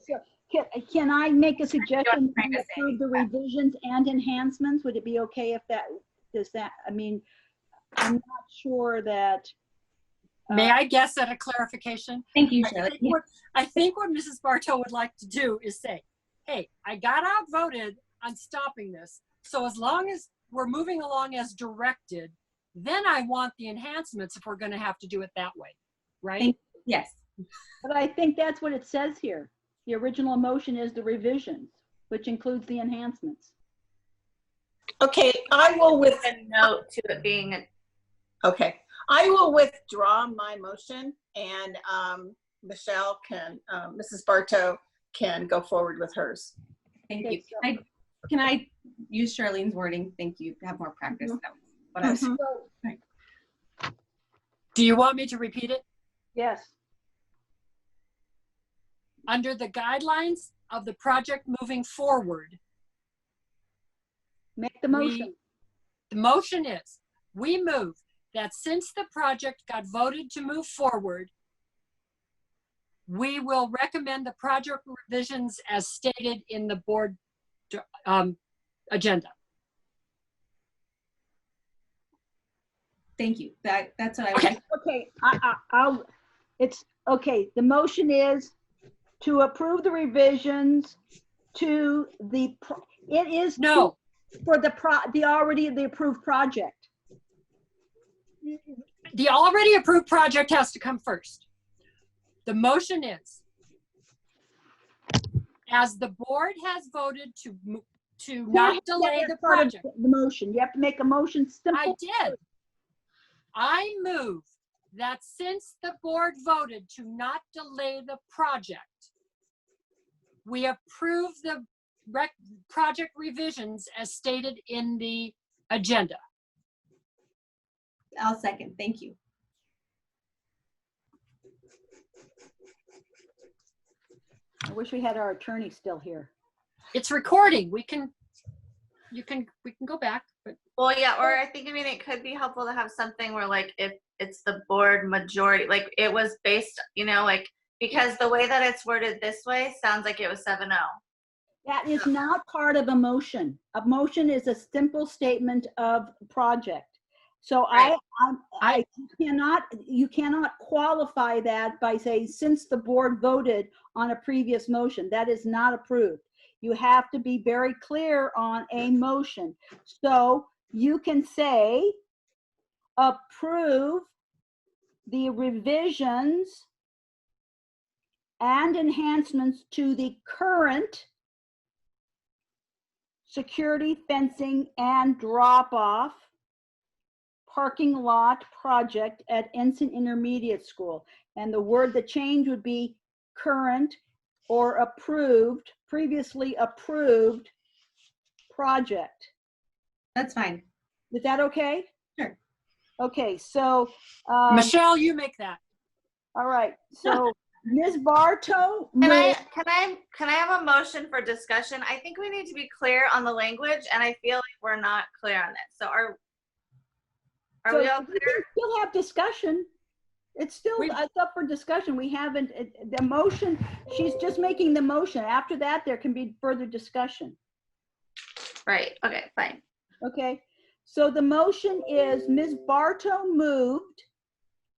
so can, can I make a suggestion? trying We to say, Approve the revisions and enhancements, would it be okay if that, does that, I mean, I'm not sure that. uh, May I guess at a clarification? Thank you, I Shirley. think what- I think what Mrs. Bartow would like to do is say, hey, I got outvoted on stopping this. So as long as we're moving along as directed, then I want the enhancements if we're going to have to do it that way, right? Thank- Yes, But I think that's what it says here. The original motion is the revisions, which includes the enhancements. Okay, I will with, a note to it being, a- okay, I will withdraw my motion and um, Michelle can, um, Mrs. Bartow can go forward with hers. thank Okay, you. so- Can I, can I use Charlene's wording? Thank you. Have more practice. That was what I was- Mm-hmm. Mhm. So, Do you want me to repeat it? Yes, Under the guidelines of the project moving forward, make the We- motion. The motion is, we move that since the project got voted to move forward, we will recommend the project revisions as stated in the board um, agenda. Thank you. That, that's what I would like. Okay, I, I, I'll, it's, okay, the motion is to approve the revisions to the, pro- it is. to- No, For the pro, the already, the approved project. the already approved project has to come first. The motion is, as the board has voted to, mo- to not delay the That's part of project. The motion, you have to make a motion I simple. did. I move that since the board voted to not delay the project, we approve the rec, project revisions as stated in the agenda. I'll second. Thank you. I wish we had our attorney still here. It's recording. We can, you can, we can go back, but well, yeah, or I think, I mean, it could be helpful to have something where like if it's the board majority, like it was based, you know, like, because the way that it's worded this way sounds like it was seven oh. That is not part of a motion. A motion is a simple statement of project. So I, Right. I'm- I cannot, you cannot qualify that by saying, since the board voted on a previous motion, that is not approved. You have to be very clear on a motion. So you can say, approve the revisions and enhancements to the current security fencing and drop-off parking lot project at Ensign Intermediate School. And the word, the change would be current or approved, previously approved project. That's fine. Is that okay? Sure. Okay, so, um, Michelle, you make that. all right, so Ms. Bartow. Can I, moved- can I, can I have a motion for discussion? I think we need to be clear on the language and I feel like we're not clear on this. So are, are we So all we clear? can Still have discussion. It's still, We- it's up for discussion. We haven't, it- the motion, she's just making the motion. After that, there can be further discussion. Right, okay, fine. Okay, so the motion is Ms. Bartow moved.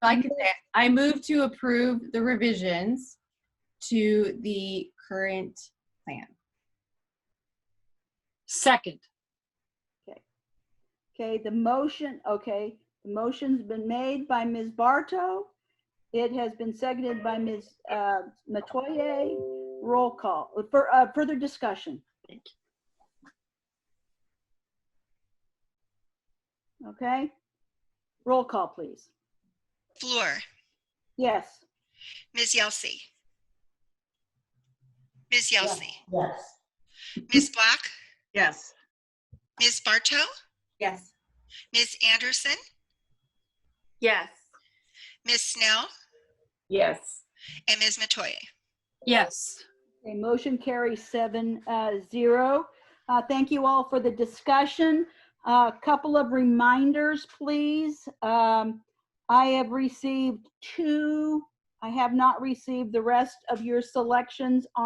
I can say, it. I move to approve the revisions to the current plan. Second, Okay, the motion, okay, the motion's been made by Ms. Bartow. It has been seconded by Ms. uh, Metoyer. Roll call, uh, for uh, further discussion. Okay, roll call, please. Fleur, Yes, Ms. Yelsey. Ms. Yelsey. Yes. Ms. Black, Yes. Ms. Bartow, Yes. Ms. Anderson, Yes, Ms. Snell, Yes. and Ms. Metoyer. yes. Okay, motion carries seven, uh, zero. Uh, thank you all for the discussion. A couple of reminders, please. Um, I have received two, I have not received the rest of your selections on.